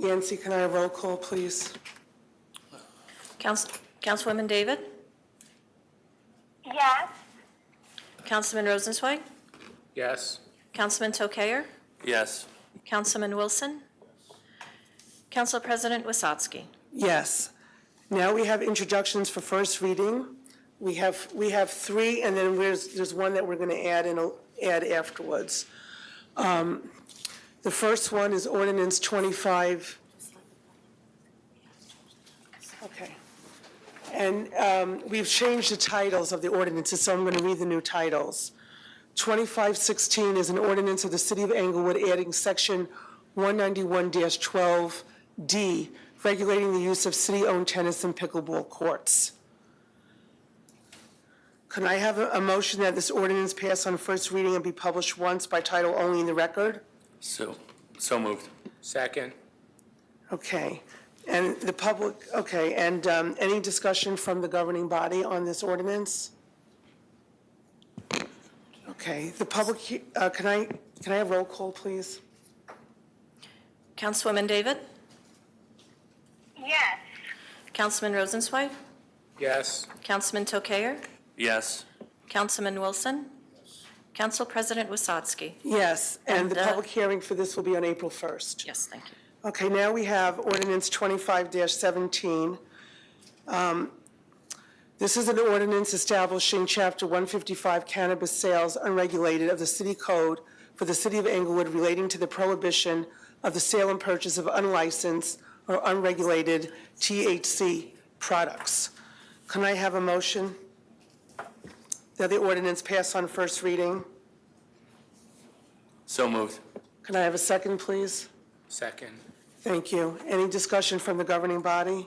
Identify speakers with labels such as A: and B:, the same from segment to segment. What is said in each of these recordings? A: Yancy, can I have roll call, please?
B: Council- Councilwoman David?
C: Yes.
B: Councilman Rosenzweig?
D: Yes.
B: Councilman Tokayer?
D: Yes.
B: Councilman Wilson? Council President Wasatski?
A: Yes. Now we have introductions for first reading. We have, we have three, and then there's, there's one that we're going to add and add afterwards. Um, The first one is ordinance 25. Okay. And um, we've changed the titles of the ordinances, so I'm going to read the new titles. 2516 is an ordinance of the City of Englewood adding Section 191-12D, regulating the use of city-owned tennis and pickleball courts. Can I have a a motion that this ordinance pass on first reading and be published once by title only in the record?
D: So, so moved. Second.
A: Okay. And the public, okay, and um, any discussion from the governing body on this ordinance? Okay, the public, he- uh, can I, can I have roll call, please?
B: Councilwoman David?
C: Yes.
B: Councilman Rosenzweig?
D: Yes.
B: Councilman Tokayer?
D: Yes.
B: Councilman Wilson? Council President Wasatski?
A: Yes, and the
B: And, uh,
A: public hearing for this will be on April 1st.
B: Yes, thank you.
A: Okay, now we have ordinance 25-17. Um, This is an ordinance establishing Chapter 155 cannabis sales unregulated of the city code for the city of Englewood relating to the prohibition of the sale and purchase of unlicensed or unregulated THC products. Can I have a motion that the ordinance pass on first reading?
D: So moved.
A: Can I have a second, please?
D: Second.
A: Thank you. Any discussion from the governing body?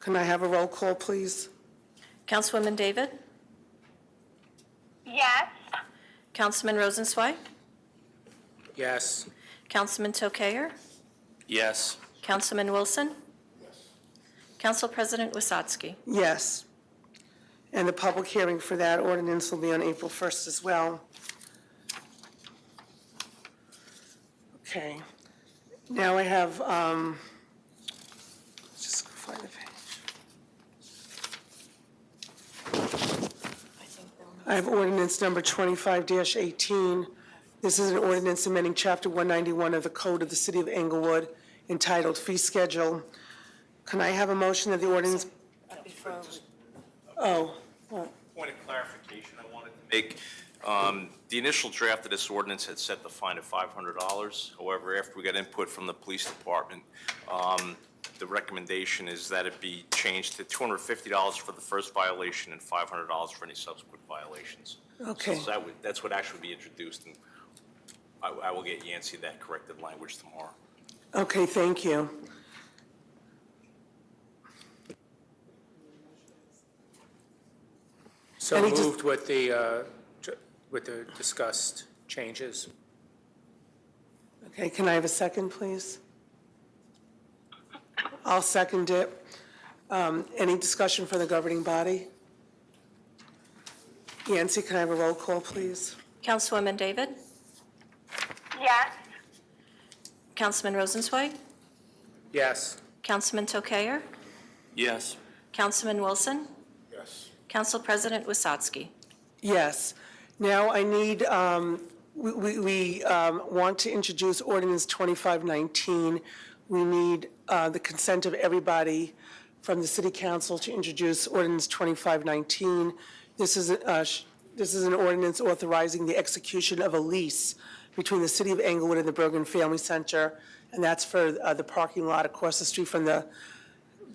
A: Can I have a roll call, please?
B: Councilwoman David?
C: Yes.
B: Councilman Rosenzweig?
D: Yes.
B: Councilman Tokayer?
D: Yes.
B: Councilman Wilson? Council President Wasatski?
A: Yes. And the public hearing for that ordinance will be on April 1st as well. Okay. Now I have, um, just find the page. I have ordinance number 25-18. This is an ordinance amending Chapter 191 of the Code of the City of Englewood entitled Fee Schedule. Can I have a motion that the ordinance, oh,
E: Point of clarification I wanted to make. Um, The initial draft of this ordinance had set the fine at $500. However, after we got input from the police department, um, the recommendation is that it be changed to $250 for the first violation and $500 for any subsequent violations.
A: Okay.
E: So that would, that's what actually be introduced, and I I will get Yancy that corrected language tomorrow.
A: Okay, thank you.
D: So
A: Any dis-
D: moved with the, uh, ju- with the discussed changes.
A: Okay, can I have a second, please? I'll second it. Um, Any discussion for the governing body? Yancy, can I have a roll call, please?
B: Councilwoman David?
C: Yes.
B: Councilman Rosenzweig?
D: Yes.
B: Councilman Tokayer?
D: Yes.
B: Councilman Wilson?
E: Yes.
B: Council President Wasatski?
A: Yes. Now I need, um, we- we we, um, want to introduce ordinance 2519. We need uh, the consent of everybody from the city council to introduce ordinance 2519. This is, uh, sh- this is an ordinance authorizing the execution of a lease between the city of Englewood and the Bergen Family Center, and that's for uh, the parking lot across the street from the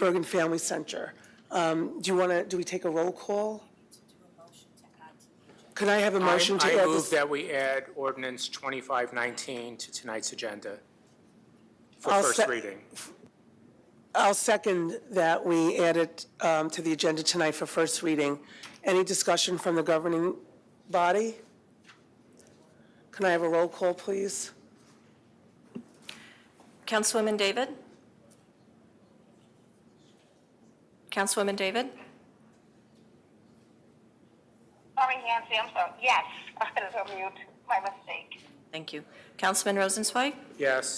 A: Bergen Family Center. Um, Do you want to, do we take a roll call? Could I have a motion to
D: I
A: add
D: move
A: this?
D: that we add ordinance 2519 to tonight's agenda for
A: I'll
D: first
A: se-
D: reading.
A: I'll second that we add it um, to the agenda tonight for first reading. Any discussion from the governing body? Can I have a roll call, please?
B: Councilwoman David? Councilwoman David?
C: Oh, Sorry, Yancy, I'm sorry. Yes. I was on mute. My mistake.
B: Thank you. Councilman Rosenzweig?
D: Yes.